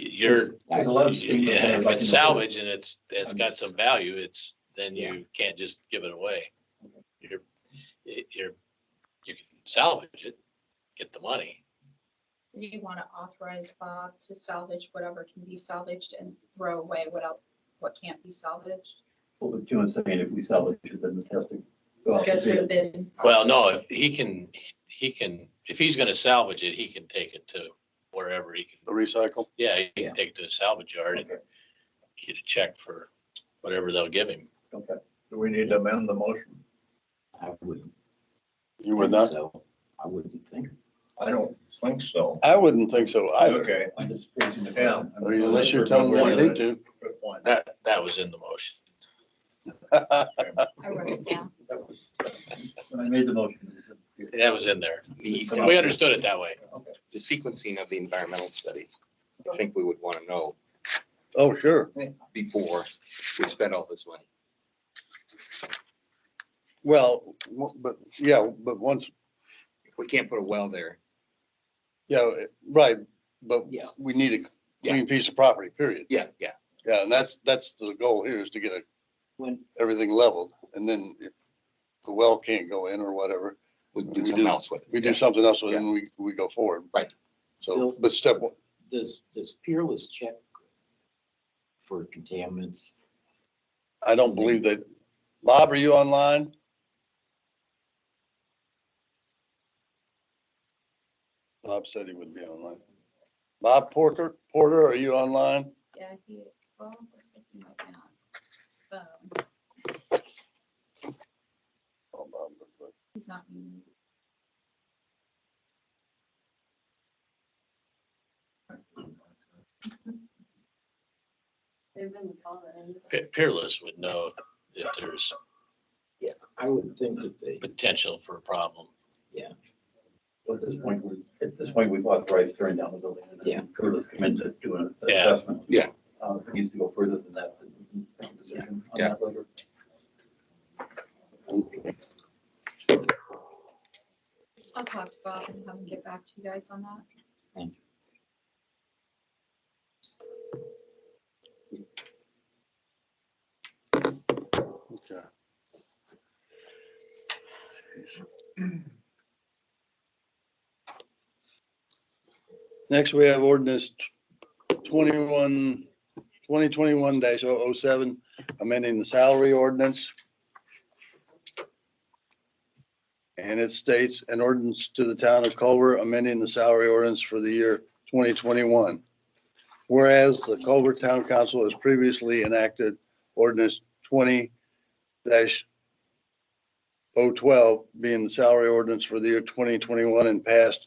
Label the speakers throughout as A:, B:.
A: you're,
B: There's a lot of stigma that
A: yeah,
B: has,
A: if
B: like,
A: it's
B: no-
A: salvage and it's, it's got some value, it's, then you can't just give it away. You're, it- you're, you can salvage it, get the money.
C: Do you want to authorize Bob to salvage whatever can be salvaged and throw away what else, what can't be salvaged?
B: Well, but Jim's saying if we salvage it, then it has to go out
C: Go
B: to
C: through the
B: bid.
C: bidding
A: Well, no,
C: process.
A: if he can, he can, if he's gonna salvage it, he can take it to wherever he
D: the
A: can.
D: recycle.
A: Yeah, he
E: Yeah.
A: can take it to a salvage yard and
B: Okay,
A: get a check for whatever they'll give him.
B: okay.
F: Do we need to amend the motion?
E: I wouldn't.
D: You would not?
E: think so. I wouldn't think.
F: I don't think so.
D: I wouldn't think so either,
F: Okay,
B: I'm just raising the
F: Yeah.
B: question. I'm-
D: unless you're telling them you need to.
F: good point.
A: That, that was in the motion.
C: I wrote it down.
B: That was- When I made the motion. it was-
A: That was in there.
G: The
A: We understood it that way.
B: Okay.
G: the sequencing of the environmental study, I think we would want to know
D: Oh, sure.
G: before we spend all this money.
D: Well, w- but, yeah, but once,
G: If we can't put a well there,
D: yeah, right, but
E: Yeah.
D: we need a clean piece of property, period.
G: yeah, yeah,
D: Yeah, and that's, that's the goal here is to get a-
E: When,
D: everything leveled. And then if the well can't go in or whatever,
G: we
D: We
G: do something
D: do-
G: else with it.
D: we
G: Yeah.
D: do something else with it and we, we go forward.
G: Right.
D: So, but step one,
E: does, does Peerless check for contaminants?
D: I don't believe that. Bob, are you online? Bob said he would be online. Bob Porter, Porter, are you online?
C: Yeah, he, well, looks like he might not. Um,
D: Oh, Bob, look, look.
C: He's not muted.
A: Pe- Peerless would know if there's
E: I would think that they,
A: potential for a problem.
B: Well, At this point, we're, at this point, we've authorized tearing down the building. and then
E: Yeah.
B: Curtis come in to do an
A: Yeah.
B: assessment.
G: Yeah.
B: Uh, if it needs to go further than that. then we can make a decision on
G: Yeah.
B: that later.
C: I'll talk to Bob and have him get back to you guys on that.
D: Okay. Next, we have ordinance twenty-one, twenty twenty-one dash oh oh seven, amending the salary ordinance. And it states an ordinance to the town of Culver amending the salary ordinance for the year twenty twenty-one. Whereas the Culver Town Council has previously enacted ordinance twenty dash oh twelve being the salary ordinance for the year twenty twenty-one and passed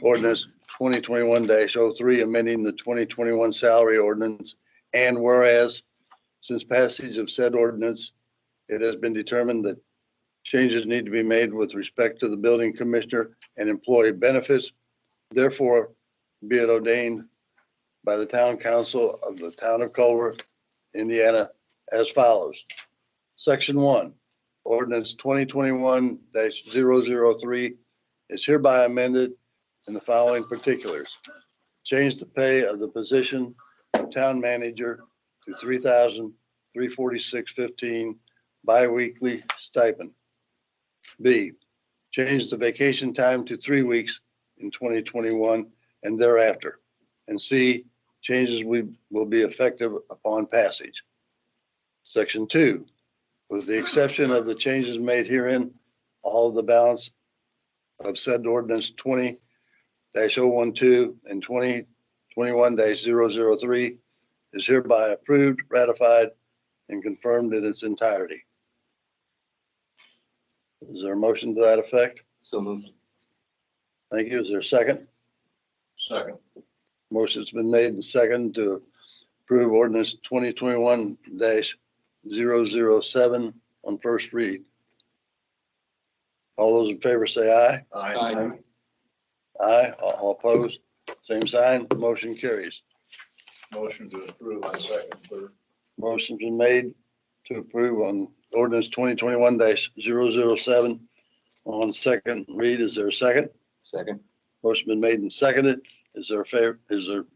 D: ordinance twenty twenty-one dash oh three amending the twenty twenty-one salary ordinance. And whereas since passage of said ordinance, it has been determined that changes need to be made with respect to the building commissioner and employee benefits. Therefore, be it ordained by the town council of the town of Culver, Indiana, as follows. Section one, ordinance twenty twenty-one 3 is hereby amended in the following particulars. Change the pay of the position of town manager to three thousand three forty-six fifteen bi-weekly stipend. B, change the vacation time to three weeks in twenty twenty-one and thereafter. And C, changes we- will be effective upon passage. Section two, with the exception of the changes made herein, all of the balance of said ordinance twenty 12 and twenty twenty-one 3 is hereby approved, ratified, and confirmed in its entirety. Is there a motion to that effect?
G: So moved.
D: Thank you. Is there a second?
F: Second,
D: Motion's been made and second to approve ordinance twenty twenty-one 7 on first read. All those in favor say aye.
F: aye.
D: Aye. All opposed, same sign, motion carries.
F: Motion to approve on second, third.
D: Motion's been made to approve on ordinance twenty twenty-one 7 on second read. Is there a second?
G: Second.
D: Motion been made and seconded. Is there a favor, is there